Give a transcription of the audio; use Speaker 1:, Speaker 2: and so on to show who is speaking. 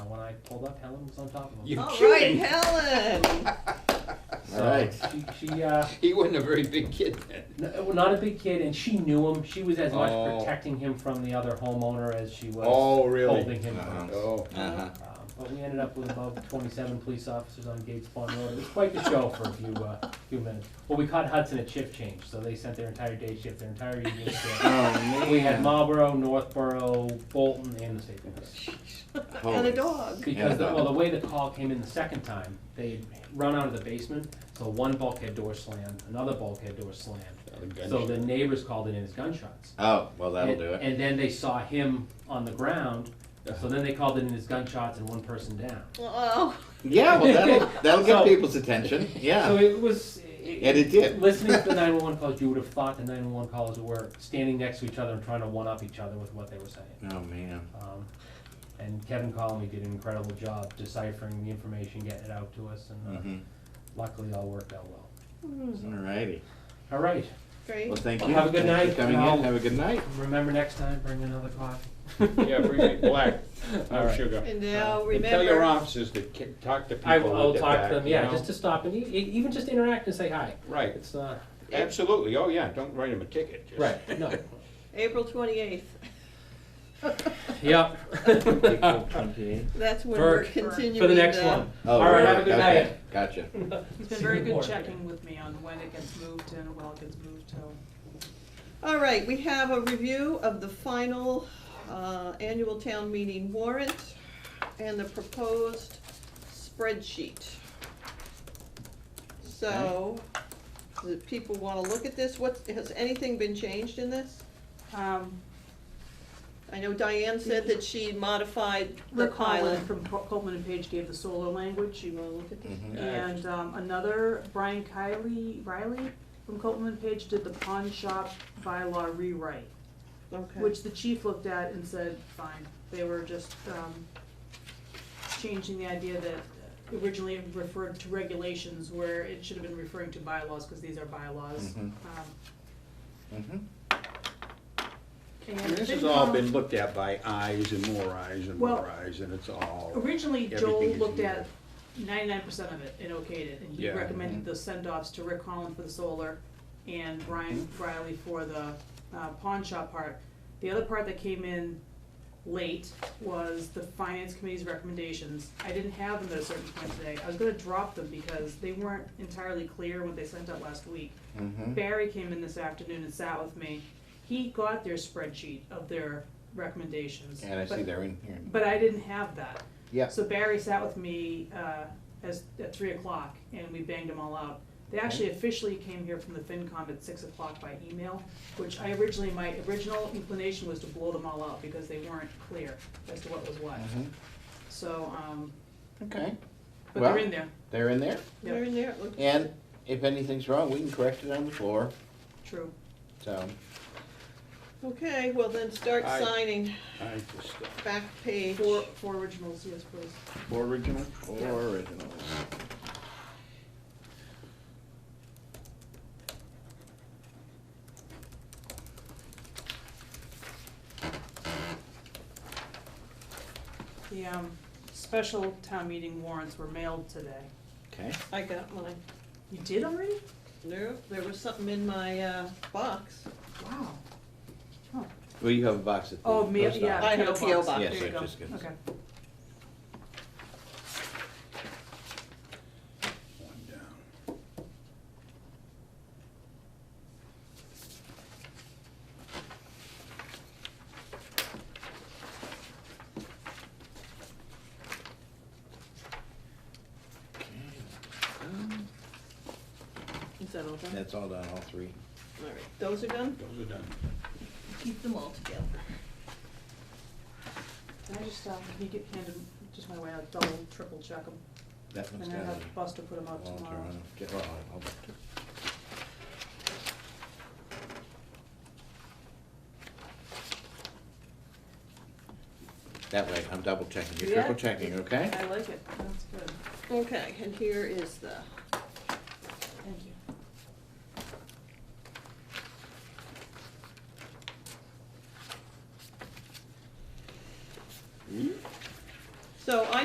Speaker 1: pulled up, Helen was on top of him.
Speaker 2: You-
Speaker 3: All right,
Speaker 2: kidding.
Speaker 3: Helen.
Speaker 1: So
Speaker 2: Alright.
Speaker 1: She, she uh,
Speaker 2: He wasn't a very big kid then.
Speaker 1: n- well, not a big kid, and she knew him. She was as much
Speaker 2: Oh.
Speaker 1: protecting him from the other homeowner as she was
Speaker 2: Oh, really?
Speaker 1: holding him.
Speaker 4: Uh-huh.
Speaker 2: Oh,
Speaker 4: Uh-huh.
Speaker 1: Um, but we ended up with about 27 police officers on Gates Pond Road. It was quite the show for a few uh, few minutes. Well, we caught Hudson at shift change, so they sent their entire day shift, their entire evening shift.
Speaker 2: Oh,
Speaker 1: We had Marlboro, Northborough, Bolton, and the state police.
Speaker 3: And
Speaker 4: Holy.
Speaker 3: a dog.
Speaker 1: Because, the-
Speaker 4: Yeah.
Speaker 1: well, the way the call came in the second time, they had run out of the basement, so one bulkhead door slammed, another bulkhead door slammed.
Speaker 2: a gun
Speaker 1: So
Speaker 2: shot.
Speaker 1: the neighbors called it in as gunshots.
Speaker 4: Oh, well, that'll
Speaker 1: And-
Speaker 4: do it. Uh-huh.
Speaker 1: And then they saw him on the ground, so then they called it in as gunshots and one person down.
Speaker 3: Oh,
Speaker 4: Yeah, well, that'll, that'll
Speaker 1: So-
Speaker 4: get people's attention,
Speaker 1: So
Speaker 4: yeah.
Speaker 1: it was.
Speaker 4: And it did.
Speaker 1: Listening to the nine-one-one calls, you would have thought the nine-one-one callers were standing next to each other and trying to one-up each other with what they were saying.
Speaker 4: Oh, man.
Speaker 1: Um, and Kevin Conley did an incredible job deciphering the information, getting it out to us, and uh,
Speaker 2: Mm-hmm.
Speaker 4: Mhm.
Speaker 1: luckily all worked out well.
Speaker 4: Alrighty.
Speaker 1: All right,
Speaker 3: great.
Speaker 4: Well, thank
Speaker 1: Well,
Speaker 4: you.
Speaker 1: have a good
Speaker 4: Thanks
Speaker 1: night,
Speaker 4: for Coming
Speaker 1: and
Speaker 4: in,
Speaker 1: I'll-
Speaker 4: have a good night.
Speaker 1: remember next time, bring another coffee.
Speaker 2: yeah, bring it black,
Speaker 1: All
Speaker 2: no
Speaker 1: right.
Speaker 2: sugar.
Speaker 3: And now
Speaker 2: And tell your
Speaker 3: remember,
Speaker 2: officers to ki- talk to people
Speaker 1: I
Speaker 2: with
Speaker 1: will
Speaker 2: their
Speaker 1: talk
Speaker 2: back,
Speaker 1: to them,
Speaker 2: you
Speaker 1: yeah,
Speaker 2: know?
Speaker 1: just to stop and e- e- even just interact and say hi.
Speaker 2: Right,
Speaker 1: It's not
Speaker 2: absolutely, oh yeah, don't write them a ticket. just-
Speaker 1: right. No.
Speaker 3: April twenty-eighth.
Speaker 1: yep.
Speaker 3: That's when
Speaker 1: For-
Speaker 3: we're
Speaker 1: for-
Speaker 3: continuing.
Speaker 1: for the next one.
Speaker 4: Oh,
Speaker 1: All right.
Speaker 4: really?
Speaker 1: Have a good
Speaker 4: Okay,
Speaker 1: night.
Speaker 4: Gotcha.
Speaker 5: He's been very good checking with me on when it gets moved and when it gets moved to.
Speaker 3: All right, we have a review of the final uh, annual town meeting warrant and the proposed spreadsheet. So, do people want to look at this? What, has anything been changed in this?
Speaker 5: Um,
Speaker 3: I know Diane said that she modified the
Speaker 5: Rick
Speaker 3: pilot.
Speaker 5: Holland from Co- Coleman and Page gave the solo language, you wanna look at this?
Speaker 4: Mhm.
Speaker 5: And, um, another, Brian Kiley, Riley from Coleman and Page did the pawn shop bylaw rewrite,
Speaker 3: Okay,
Speaker 5: which the chief looked at and said, fine, they were just, um, changing the idea that originally it referred to regulations where it should have been referring to bylaws, cause these are bylaws.
Speaker 4: Mhm.
Speaker 5: Um,
Speaker 4: Mhm.
Speaker 5: and
Speaker 2: I mean, This has all
Speaker 5: FinCom-
Speaker 2: been looked at by eyes and more eyes and
Speaker 5: Well,
Speaker 2: more eyes, and it's all.
Speaker 5: Originally, Joel
Speaker 2: Everything is
Speaker 5: looked
Speaker 2: new.
Speaker 5: at ninety-nine percent of it and okayed it, and he
Speaker 2: Yeah.
Speaker 5: recommended the send-offs to Rick Holland for the solar and Brian Riley for the uh, pawn shop part. The other part that came in late was the finance committee's recommendations. I didn't have them at a certain point today. I was gonna drop them because they weren't entirely clear what they sent out last week.
Speaker 4: Mhm.
Speaker 5: Barry came in this afternoon and sat with me. He got their spreadsheet of their recommendations.
Speaker 4: And I
Speaker 5: but-
Speaker 4: see they're in here.
Speaker 5: But I didn't have that.
Speaker 4: Yeah.
Speaker 5: So Barry sat with me uh, as, at three o'clock, and we banged them all out. They actually officially came here from the FinCom at six o'clock by email, which I originally, my original inclination was to blow them all out because they weren't clear as to what was what.
Speaker 4: Mhm.
Speaker 5: So, um,
Speaker 4: Okay,
Speaker 5: but they're
Speaker 4: Well-
Speaker 5: in there.
Speaker 4: they're in there,
Speaker 5: Yep.
Speaker 3: they're in there, it looks-
Speaker 4: and if anything's wrong, we can correct it on the floor,
Speaker 5: True.
Speaker 4: so.
Speaker 3: Okay, well then start
Speaker 2: I-
Speaker 3: signing
Speaker 2: I just, uh,
Speaker 3: back page.
Speaker 5: Four, four originals, yes, please.
Speaker 4: Four original?
Speaker 5: Yeah.
Speaker 4: Four original.
Speaker 5: The um, special town meeting warrants were mailed today.
Speaker 4: Okay,
Speaker 3: I got mine.
Speaker 5: You did already?
Speaker 3: No, there was something in my uh, box.
Speaker 5: Wow.
Speaker 4: well, you have a box at the
Speaker 5: Oh, mail,
Speaker 4: post
Speaker 5: yeah.
Speaker 4: office.
Speaker 3: I have a PO box.
Speaker 4: Yes,
Speaker 5: There you
Speaker 4: I
Speaker 5: go.
Speaker 4: just got-
Speaker 5: Okay.
Speaker 2: one down.
Speaker 3: Is that all done?
Speaker 4: That's all done, all three.
Speaker 3: All right, those are done?
Speaker 2: Those are done.
Speaker 3: Keep them all together.
Speaker 5: Can I just, um, can you get handed, just my way, I'll double, triple check them,
Speaker 4: That
Speaker 5: and
Speaker 4: one's
Speaker 5: then
Speaker 4: gotta
Speaker 5: have
Speaker 4: be.
Speaker 5: Buster put them out
Speaker 4: Walter
Speaker 5: tomorrow.
Speaker 4: on it. Get- well, I'll- I'll- That way, I'm double checking, you're
Speaker 5: Yeah.
Speaker 4: triple checking, okay?
Speaker 5: I like it, that's good,
Speaker 3: Okay, and here is the,
Speaker 5: thank you. Mm-hmm.
Speaker 3: so I